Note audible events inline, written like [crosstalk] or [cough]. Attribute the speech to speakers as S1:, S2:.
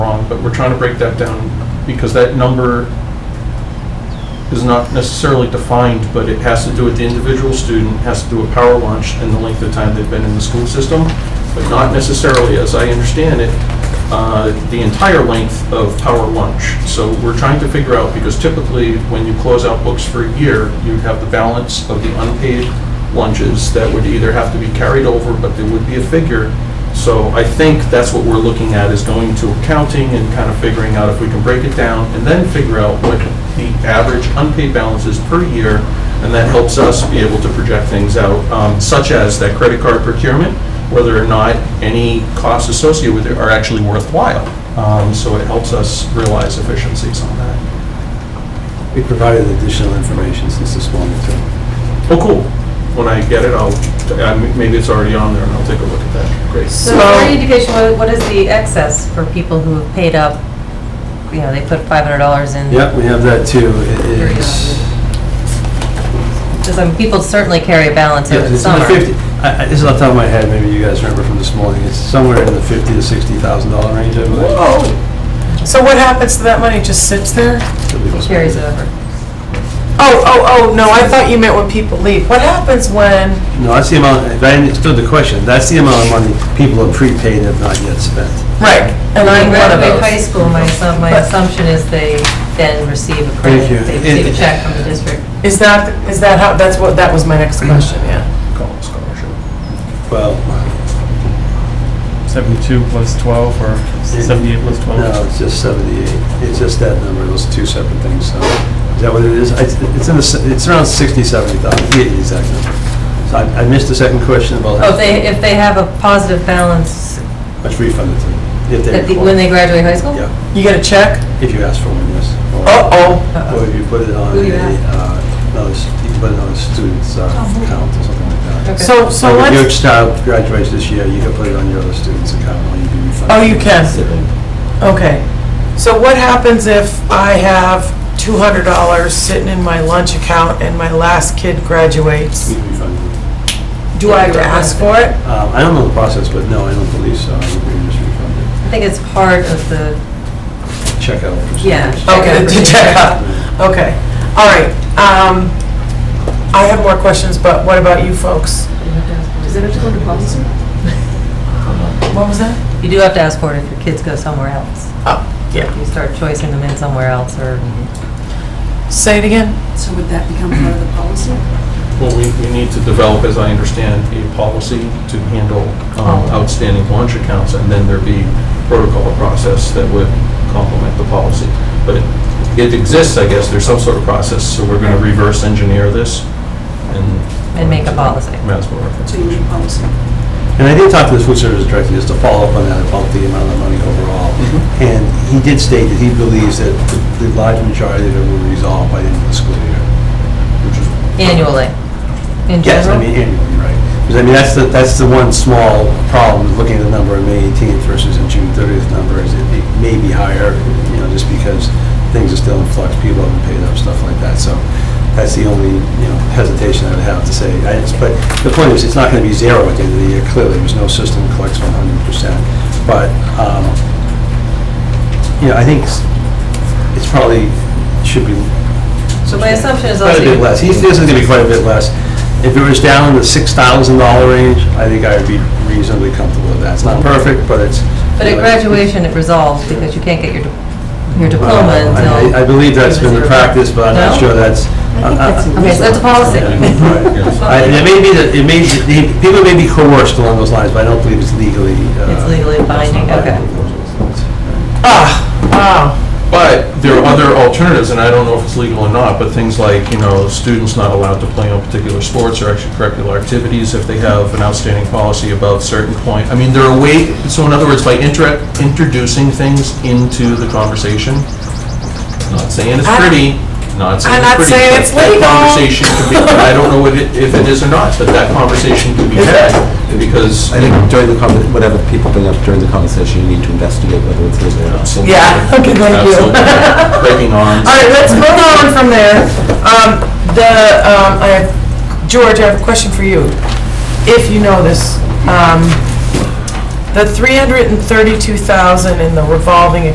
S1: but we're trying to break that down because that number is not necessarily defined, but it has to do with the individual student, has to do with power lunch and the length of time they've been in the school system, but not necessarily, as I understand it, uh, the entire length of power lunch. So we're trying to figure out, because typically, when you close out books for a year, you have the balance of the unpaid lunches that would either have to be carried over, but there would be a figure. So I think that's what we're looking at, is going to accounting and kind of figuring out if we can break it down, and then figure out what the average unpaid balance is per year, and that helps us be able to project things out, um, such as that credit card procurement, whether or not any costs associated with it are actually worthwhile. Um, So it helps us realize efficiencies on that.
S2: We provided additional information since this one, too.
S1: Oh, cool. When I get it, I'll, I- maybe it's already on there, and I'll take a look at that. Great.
S3: So for education, what- what is the excess for people who have paid up, you know, they put $500 in?
S2: Yep, we have that too. It is.
S3: Because I mean, people certainly carry a balance
S2: Yeah,
S3: over the
S2: It's in the
S3: summer.
S2: 50, I- I- this is off the top of my head, maybe you guys remember from this morning, it's somewhere in the 50 to 60,000 dollar range, I believe.
S4: Oh. So what happens to that money? Just sits there?
S2: that people
S3: It
S2: spend.
S3: Carries over.
S4: Oh, oh, oh, no, I thought you meant when people leave. What happens when,
S2: No, that's the amount, if I understood the question, that's the amount of money people have prepaid and have not yet spent.
S4: right, and
S3: When
S4: I'm
S3: they
S4: one of
S3: graduate high
S4: those.
S3: school, my assumption, my
S4: But-
S3: assumption is they then receive a
S2: Thank you.
S3: credit, they
S2: It-
S3: receive a check from the district.
S4: Is that, is that how, that's what, that was my next question, yeah.
S1: Call it scholarship.
S2: Well,
S5: 72 plus 12 or 78 plus 12?
S2: no, it's just 78, it's just that number, those are two separate things, so, is that what it is? I- It's in the, s- it's around 60, 70,000, the exact number. So I I missed the second question about
S3: Oh,
S2: how
S3: if they, if they have a positive balance
S2: much refunded to them. if they
S3: at the, when they
S2: require.
S3: graduate high school?
S2: Yeah,
S4: You get a check?
S2: if you ask for one, yes. Or-
S4: Uh-oh.
S2: Or if you put it on
S3: Oh,
S2: a,
S3: Who you ask?
S2: uh, another, s- you put it on a student's uh, account or something like that.
S3: Okay.
S4: So, so
S2: Like if your
S4: let's,
S2: child graduates this year, you can put it on your other student's account or you can refund.
S4: oh, you can. Okay. So what happens if I have $200 sitting in my lunch account and my last kid graduates?
S2: You can refund it.
S4: Do I have to ask for it?
S2: Um, I don't know the process, but no, I don't believe so. I think we just refund
S3: I think it's part of the,
S2: it. Check out. for
S3: Yeah.
S2: students. [laughs]
S4: Okay, [laughs] to check out. Okay, all right. Um, I have more questions, but what about you folks?
S6: Does it have to go into policy?
S4: What was that?
S3: you do have to ask for it if your kids go somewhere else.
S4: Oh, yeah.
S3: You start choicing them in somewhere else or
S4: Say it again?
S6: So would that become part of the policy?
S1: Well, we, we need to develop, as I understand, a policy to handle um, outstanding launch accounts, and then there'd be protocol process that would complement the policy. But it- it exists, I guess, there's some sort of process, so we're going to reverse engineer this and.
S3: And make a policy.
S1: Might as well reference
S6: So
S1: it.
S6: you need a policy.
S2: And I did talk to the food service director just to follow up on that about the amount of money overall. And he did state that he believes that the the large majority of it will resolve by the end of the school year. Which is
S3: annually, in general.
S2: Yes, I mean annually, right. Because I mean, that's the, that's the one small problem, is looking at the number on May 18th versus the June 30th number, is it it may be higher, you know, just because things are still in flux, people haven't paid up, stuff like that. So that's the only, you know, hesitation I would have to say. I- it's- But the point is, it's not going to be zero at the end of the year, clearly. There's no system that collects 100%. But, um, you know, I think s- it's probably, should be
S3: So my assumption is
S2: Quite
S3: also.
S2: a bit less. He thinks it's gonna be quite a bit less. If it was down in the six thousand dollar range, I think I would be reasonably comfortable with that. It's not perfect, but it's.
S3: But at graduation, it resolves because you can't get your, di- your diploma
S2: Well, I-
S3: until.
S2: I believe that's been the practice, but I'm not
S3: No?
S2: sure that's. uh,
S3: Okay, so that's a policy.
S2: Yeah, right,
S3: [laughs]
S2: yes. I- It may be, that- it may, the- people may be coerced along those lines, but I don't believe it's legally. uh,
S3: It's legally binding, okay.
S4: Ah, wow.
S1: But there are other alternatives, and I don't know if it's legal or not, but things like, you know, students not allowed to play on particular sports or extracurricular activities if they have an outstanding policy above certain point. I mean, there are ways, so in other words, by intra- introducing things into the conversation, not saying it's
S4: I-
S1: pretty, not saying
S4: I'm
S1: it's
S4: not
S1: pretty.
S4: saying
S1: but
S4: it's
S1: that
S4: legal.
S1: Conversation could be, and I don't know what it- if it is or not, but that conversation could be
S4: Is
S1: had, because
S7: I think during the, conver- whatever people bring up during the conversation, you need to investigate whether it's legal or not.
S1: absolutely.
S4: Yeah, [laughs] okay, thank you.
S1: Absolutely. Breaking arms.
S4: [laughs] All right, let's move on from there. Um, The, um, I have- George, I have a question for you, if you know this. Um, The 332,000 in the revolving